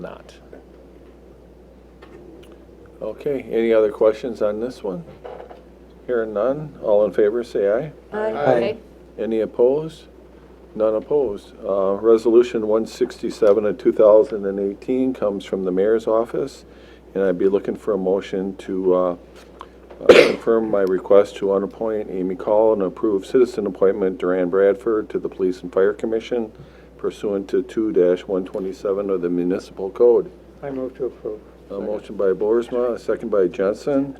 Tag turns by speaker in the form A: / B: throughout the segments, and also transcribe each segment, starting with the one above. A: not. Okay, any other questions on this one? Hearing none, all in favor, say aye.
B: Aye.
A: Any opposed? None opposed. Uh, Resolution 167 of 2018 comes from the mayor's office, and I'd be looking for a motion to uh, uh, confirm my request to unappoint Amy Call and approve citizen appointment Duran Bradford to the Police and Fire Commission pursuant to 2-127 of the municipal code.
B: I move to approve.
A: A motion by Boersma, a second by Jensen.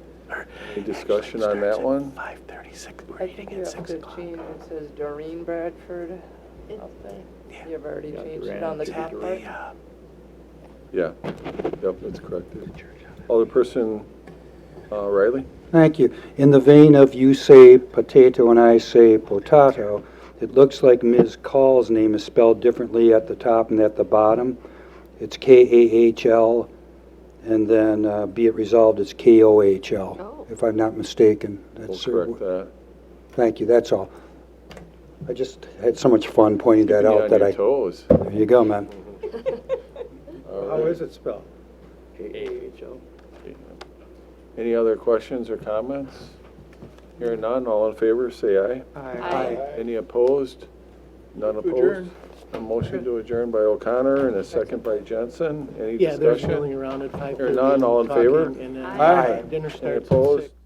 A: Any discussion on that one?
C: Five thirty-six, we're
D: I
C: eating
D: think you
C: at
D: have
C: six
D: to
C: o'clock.
D: change, it says Doreen Bradford up there. You've already changed it on the
C: To
D: top
C: the,
D: part.
C: uh,
A: Yeah, yep, that's corrected.
C: church on it.
A: Alderperson uh, Riley?
E: Thank you. In the vein of you say potato and I say potato, it looks like Ms. Call's name is spelled differently at the top and at the bottom. It's K-A-H-L, and then uh, be it resolved, it's K-O-H-L, if I'm not mistaken.
A: We'll
E: That's
A: correct that.
E: Thank you, that's all. I just had so much fun pointing that
A: Be
E: out
A: on
E: that
A: your
E: I...
A: toes.
E: There you go, man.
B: How is it spelled?
A: Any other questions or comments? Hearing none, all in favor, say aye. Any opposed? None opposed?
B: adjourn.
A: A motion to adjourn by O'Connor and a second by Jensen. Any
F: Yeah, they're
A: discussion?
F: milling around at five thirty.
A: none, all in favor?
F: And then uh,
E: Aye.
F: dinner
A: Any
F: starts at
A: opposed?
F: six.